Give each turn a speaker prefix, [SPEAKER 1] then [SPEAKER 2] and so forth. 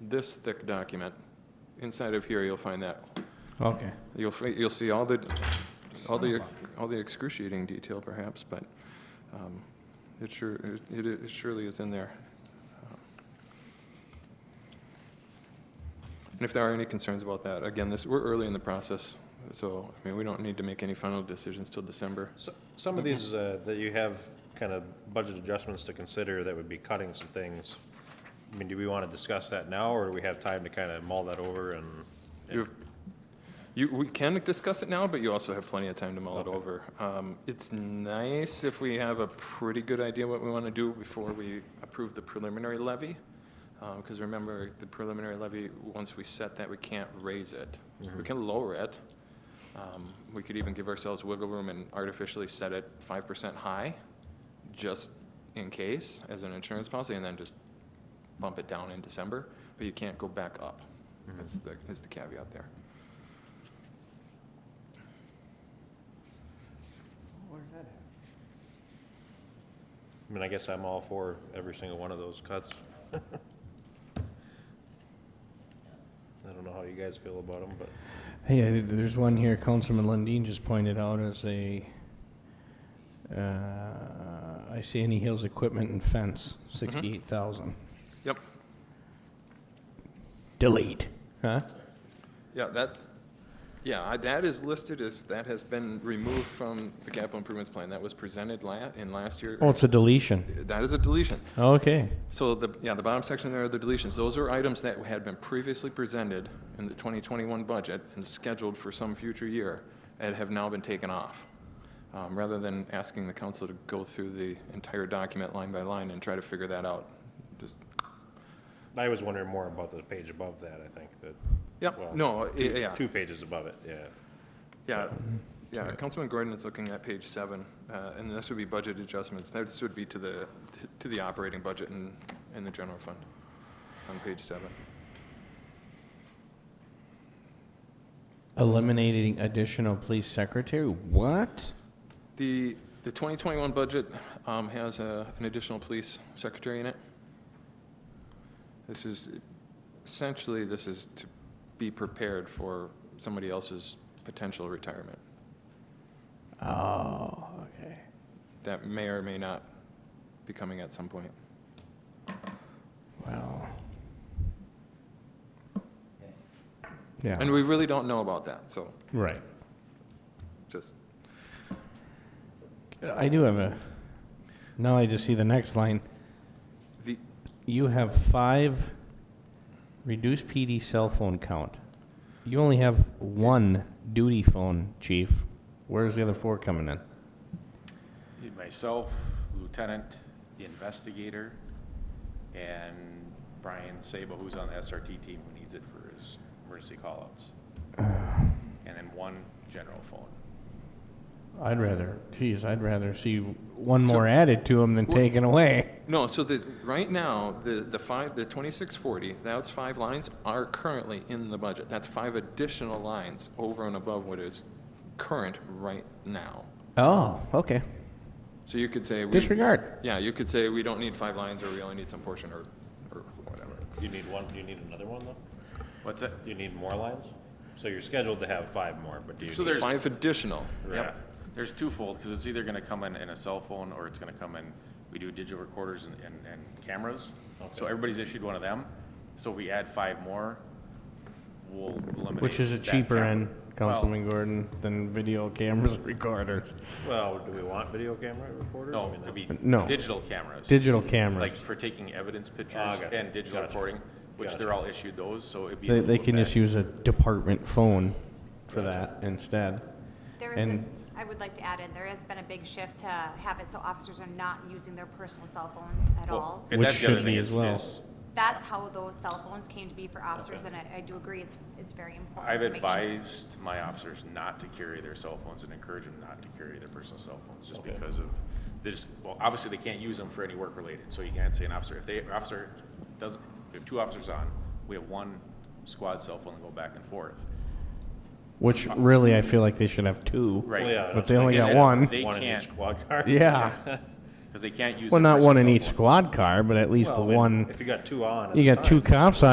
[SPEAKER 1] this thick document. Inside of here, you'll find that.
[SPEAKER 2] Okay.
[SPEAKER 1] You'll, fi- you'll see all the, all the, all the excruciating detail perhaps, but um, it sure, it it surely is in there. And if there are any concerns about that, again, this, we're early in the process, so, I mean, we don't need to make any final decisions till December.
[SPEAKER 3] So- Some of these uh,
[SPEAKER 1] Mm-hmm.
[SPEAKER 3] that you have kind of budget adjustments to consider that would be cutting some things. I mean, do we want to discuss that now, or do we have time to kind of mull that over and?
[SPEAKER 1] You, you, we can discuss it now, but you also have plenty of time to mull it
[SPEAKER 3] Okay.
[SPEAKER 1] over. Um, It's nice if we have a pretty good idea what we want to do before we approve the preliminary levy. Because remember, the preliminary levy, once we set that, we can't raise it. We
[SPEAKER 3] Mhm.
[SPEAKER 1] can lower it. Um, We could even give ourselves wiggle room and artificially set it five percent high, just in case, as an insurance policy, and then just bump it down in December. But you can't go back up,
[SPEAKER 3] Mhm.
[SPEAKER 1] is the, is the caveat there.
[SPEAKER 3] I mean, I guess I'm all for every single one of those cuts. I don't know how you guys feel about them, but
[SPEAKER 2] Hey, I- there's one here Councilman Lundin just pointed out as a, uh, I see any hills equipment and fence, sixty-eight thousand.
[SPEAKER 1] Yep,
[SPEAKER 2] Delete. Huh?
[SPEAKER 1] yeah, that, yeah, I- that is listed as, that has been removed from the capital improvements plan. That was presented la, in last year.
[SPEAKER 2] Oh, it's a deletion.
[SPEAKER 1] That is a deletion.
[SPEAKER 2] Okay.
[SPEAKER 1] So the, yeah, the bottom section there are the deletions. Those are items that had been previously presented in the 2021 budget and scheduled for some future year and have now been taken off. Um, Rather than asking the council to go through the entire document line by line and try to figure that out, just,
[SPEAKER 3] I was wondering more about the page above that, I think, that. well,
[SPEAKER 1] yep, no, i-
[SPEAKER 3] two-
[SPEAKER 1] yeah.
[SPEAKER 3] Two pages above it, yeah.
[SPEAKER 1] Yeah, yeah, Councilman Gordon is looking at page seven, uh, and this would be budget adjustments. This would be to the, to the operating budget and, and the general fund on page seven.
[SPEAKER 2] Eliminating additional police secretary? What?
[SPEAKER 1] The, the 2021 budget um, has a- an additional police secretary in it. This is, essentially, this is to be prepared for somebody else's potential retirement
[SPEAKER 2] Oh, okay.
[SPEAKER 1] that may or may not be coming at some point.
[SPEAKER 2] Wow. Yeah.
[SPEAKER 1] And we really don't know about that, so
[SPEAKER 2] Right.
[SPEAKER 1] just,
[SPEAKER 2] I do have a, now I just see the next line.
[SPEAKER 1] the,
[SPEAKER 2] You have five reduced PD cell phone count. You only have one duty phone, chief. Where's the other four coming in?
[SPEAKER 4] Myself, Lieutenant, the investigator, and Brian Sabo, who's on the SRT team, who needs it for his emergency callouts. And then one general phone.
[SPEAKER 2] I'd rather, geez, I'd rather see one
[SPEAKER 1] So-
[SPEAKER 2] more added to them than
[SPEAKER 1] Well-
[SPEAKER 2] taken away.
[SPEAKER 1] no, so the, right now, the, the five, the 2640, those five lines are currently in the budget. That's five additional lines over and above what is current right now.
[SPEAKER 2] Oh, okay.
[SPEAKER 1] So you could say. we-
[SPEAKER 2] Disregard.
[SPEAKER 1] Yeah, you could say we don't need five lines, or we only need some portion, or, or whatever.
[SPEAKER 3] You need one, do you need another one, though?
[SPEAKER 4] What's that?
[SPEAKER 3] You need more lines? So you're scheduled to have five more, but do you?
[SPEAKER 4] So
[SPEAKER 3] need-
[SPEAKER 4] there's-
[SPEAKER 1] Five additional.
[SPEAKER 3] Yeah.
[SPEAKER 4] There's twofold, because it's either gonna come in in a cell phone, or it's gonna come in, we do digital recorders and, and, and cameras. So
[SPEAKER 3] Okay.
[SPEAKER 4] everybody's issued one of them, so if we add five more, we'll eliminate.
[SPEAKER 2] Which is a
[SPEAKER 4] that
[SPEAKER 2] cheaper
[SPEAKER 4] camera.
[SPEAKER 2] end,
[SPEAKER 4] Well,
[SPEAKER 2] Councilman Gordon, than video cameras and recorders.
[SPEAKER 3] Well, do we want video camera recorders? I
[SPEAKER 4] No,
[SPEAKER 3] mean,
[SPEAKER 4] it'd be
[SPEAKER 2] No.
[SPEAKER 4] digital cameras.
[SPEAKER 2] Digital cameras.
[SPEAKER 4] Like for taking evidence
[SPEAKER 3] Ah,
[SPEAKER 4] pictures
[SPEAKER 3] gotcha,
[SPEAKER 4] and digital
[SPEAKER 3] gotcha,
[SPEAKER 4] recording, which
[SPEAKER 3] gotcha.
[SPEAKER 4] they're all issued those, so it'd be.
[SPEAKER 2] They,
[SPEAKER 4] able to
[SPEAKER 2] they
[SPEAKER 4] look
[SPEAKER 2] can
[SPEAKER 4] back.
[SPEAKER 2] just use a department phone for that instead.
[SPEAKER 5] There is, a-
[SPEAKER 2] And-
[SPEAKER 5] I would like to add in, there has been a big shift to have it so officers are not using their personal cell phones at
[SPEAKER 4] Well,
[SPEAKER 5] all.
[SPEAKER 4] and
[SPEAKER 2] Which
[SPEAKER 4] that's the other
[SPEAKER 2] should
[SPEAKER 4] thing
[SPEAKER 2] be
[SPEAKER 4] is-
[SPEAKER 2] as well.
[SPEAKER 4] is
[SPEAKER 5] That's how those cell phones came to be for officers, and I, I do agree, it's, it's very important
[SPEAKER 4] I've
[SPEAKER 5] to make sure.
[SPEAKER 4] advised my officers not to carry their cell phones and encourage them not to carry their personal cell phones, just because of this, well, obviously, they can't use them for any work related, so you can't say an officer, if they, an officer doesn't, we have two officers on, we have one squad cell phone and go back and forth.
[SPEAKER 2] Which really, I feel like they should have two.
[SPEAKER 4] Right.
[SPEAKER 3] Well, yeah,
[SPEAKER 2] But they only
[SPEAKER 4] Like I
[SPEAKER 2] got
[SPEAKER 4] said,
[SPEAKER 2] one.
[SPEAKER 4] They
[SPEAKER 3] One in
[SPEAKER 4] can't,
[SPEAKER 3] each squad car?
[SPEAKER 2] Yeah.
[SPEAKER 4] because they can't use.
[SPEAKER 2] Well,
[SPEAKER 4] their
[SPEAKER 2] not one in
[SPEAKER 4] personal
[SPEAKER 2] each
[SPEAKER 4] cell phone.
[SPEAKER 2] squad car, but at least the
[SPEAKER 3] Well, then
[SPEAKER 2] one,
[SPEAKER 3] If you got two on. at
[SPEAKER 2] you
[SPEAKER 3] the
[SPEAKER 2] got two
[SPEAKER 3] time.
[SPEAKER 2] cops on.